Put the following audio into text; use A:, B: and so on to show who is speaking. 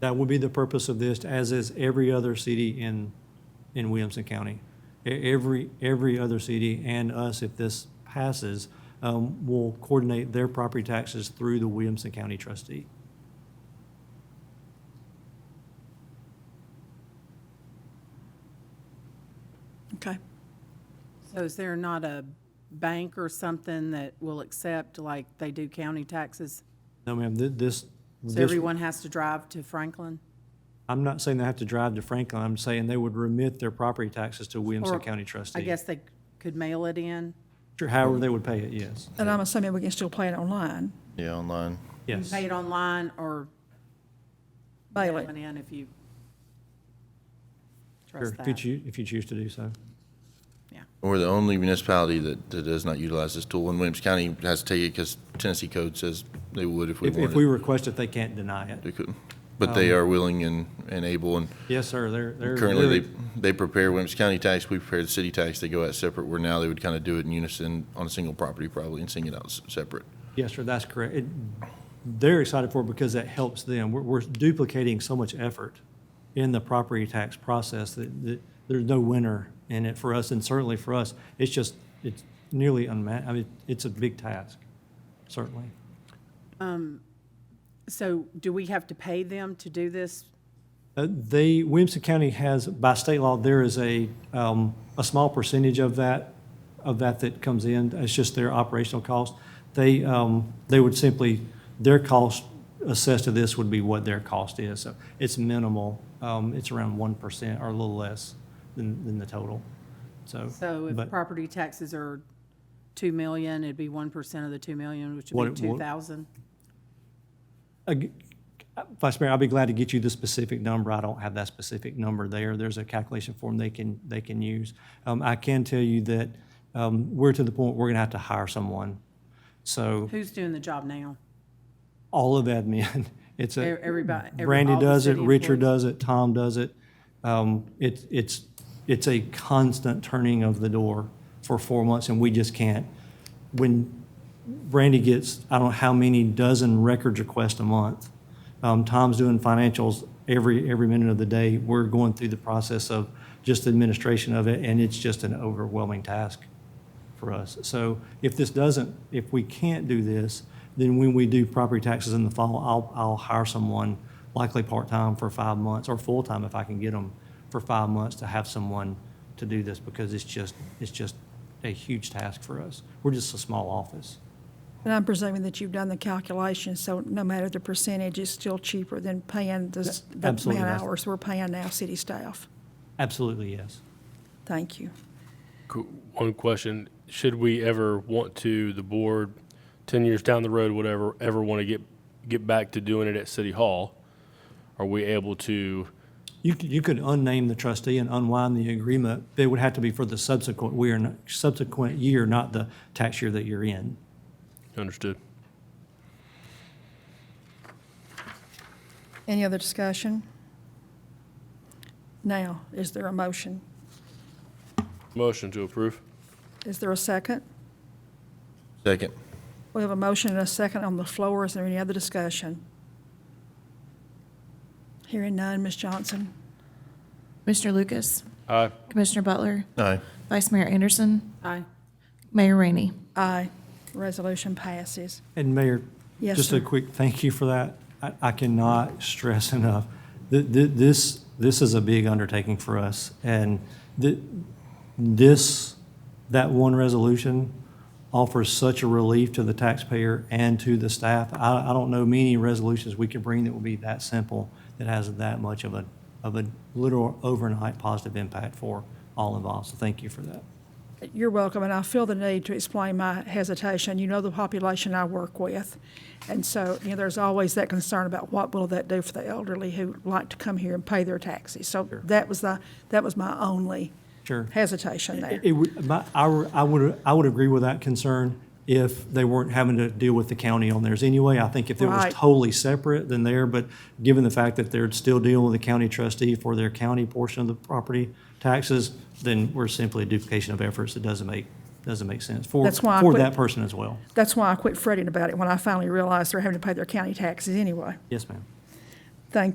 A: That would be the purpose of this, as is every other city in, in Williamson County. E- Every, every other city and us, if this passes, um, will coordinate their property taxes through the Williamson County trustee.
B: Okay.
C: So is there not a bank or something that will accept, like they do county taxes?
A: No, ma'am, thi- this,
C: So
A: this,
C: everyone has to drive to Franklin?
A: I'm not saying they have to drive to Franklin. I'm saying they would remit their property taxes to Williamson
C: Or,
A: County trustee.
C: I guess they could mail it in?
A: Sure, However, they would pay it, yes.
B: And I'm assuming we can still play it online,
D: Yeah, online.
A: Yes.
C: Pay it online or
B: mail
C: mail
B: it.
C: it in if you
A: Sure,
C: trust
A: If you
C: that?
A: choose, if you choose to do so.
C: Yeah.
D: We're the only municipality that, that does not utilize this tool, and Williams County has to take it because Tennessee code says they would if we
A: If, if we
D: wanted.
A: request it, they can't deny it.
D: They couldn't. But they are willing and, and able, and
A: Yes, sir, they're, they're.
D: currently they,
A: really-
D: they prepare Williams County tax, we prepare the city tax, they go out separate, where now they would kind of do it in unison on a single property probably and sing it out s- separate.
A: Yes, sir, that's correct. It- They're excited for it because that helps them. We're, we're duplicating so much effort in the property tax process that, that there's no winner in it for us, and certainly for us, it's just, it's nearly unma, I mean, it's a big task, certainly.
C: So do we have to pay them to do this?
A: Uh, They, Williamson County has, by state law, there is a, um, a small percentage of that, of that that comes in. It's just their operational cost. They, um, they would simply, their cost assessed to this would be what their cost is. So it's minimal. Um, It's around 1% or a little less than, than the total. So.
C: So if
A: but-
C: property taxes are 2 million, it'd be 1% of the 2 million, which
A: What
C: would
A: it
C: be
A: would-
C: 2,000?
A: Ag- Vice Mayor, I'll be glad to get you the specific number. I don't have that specific number there. There's a calculation form they can, they can use. Um, I can tell you that, um, we're to the point, we're gonna have to hire someone. So
C: Who's doing the job now?
A: all of admin, it's
C: E-
A: a,
C: Everybody? every-
A: Brandy
C: all the
A: does it,
C: city
A: Richard
C: employees?
A: does it, Tom does it. Um, it's, it's, it's a constant turning of the door for four months and we just can't. When Brandy gets, I don't know how many dozen records requests a month. Um, Tom's doing financials every, every minute of the day. We're going through the process of just the administration of it and it's just an overwhelming task for us. So if this doesn't, if we can't do this, then when we do property taxes in the fall, I'll, I'll hire someone, likely part-time for five months, or full-time if I can get them, for five months to have someone to do this, because it's just, it's just a huge task for us. We're just a small office.
B: And I'm presuming that you've done the calculation, so no matter the percentage, it's still cheaper than paying this, the
A: Absolutely,
B: amount
A: that's-
B: of hours we're paying now city staff.
A: Absolutely, yes.
B: Thank you.
E: Qu- One question, should we ever want to, the board, ten years down the road, whatever, ever want to get, get back to doing it at City Hall? Are we able to,
A: You could, you could unname the trustee and unwind the agreement. It would have to be for the subsequent, we are, not- subsequent year, not the tax year that you're in.
E: understood?
B: Any other discussion? Now, is there a motion?
E: Motion to approve?
B: Is there a second?
D: Second,
B: We have a motion and a second on the floor. Is there any other discussion? Hearing none, Ms. Johnson?
F: Commissioner Lucas,
E: Aye.
F: Commissioner Butler,
D: aye.
F: Vice Mayor Anderson,
C: Aye.
F: Mayor Rainey.
B: Aye. Resolution passes.
A: And Mayor,
B: Yes,
A: just
B: sir.
A: a quick thank you for that. I, I cannot stress enough, th- th- this, this is a big undertaking for us. And th- this, that one resolution offers such a relief to the taxpayer and to the staff. I, I don't know many resolutions we could bring that will be that simple, that has that much of a, of a literal overnight positive impact for all involved. So thank you for that.
B: You're welcome, and I feel the need to explain my hesitation. You know the population I work with, and so, you know, there's always that concern about what will that do for the elderly who like to come here and pay their taxes. So that was the, that was my only
A: Sure.
B: hesitation there.
A: It would, my, I were- I would, I would agree with that concern if they weren't having to deal with the county on theirs anyway. I think if it was
B: Right.
A: totally separate, then there, but given the fact that they're still dealing with the county trustee for their county portion of the property taxes, then we're simply a duplication of efforts that doesn't make, doesn't make sense for,
B: That's why I
A: for
B: put-
A: that person as well.
B: That's why I quit fretting about it when I finally realized they're having to pay their county taxes anyway.
A: Yes, ma'am.
B: Thank you.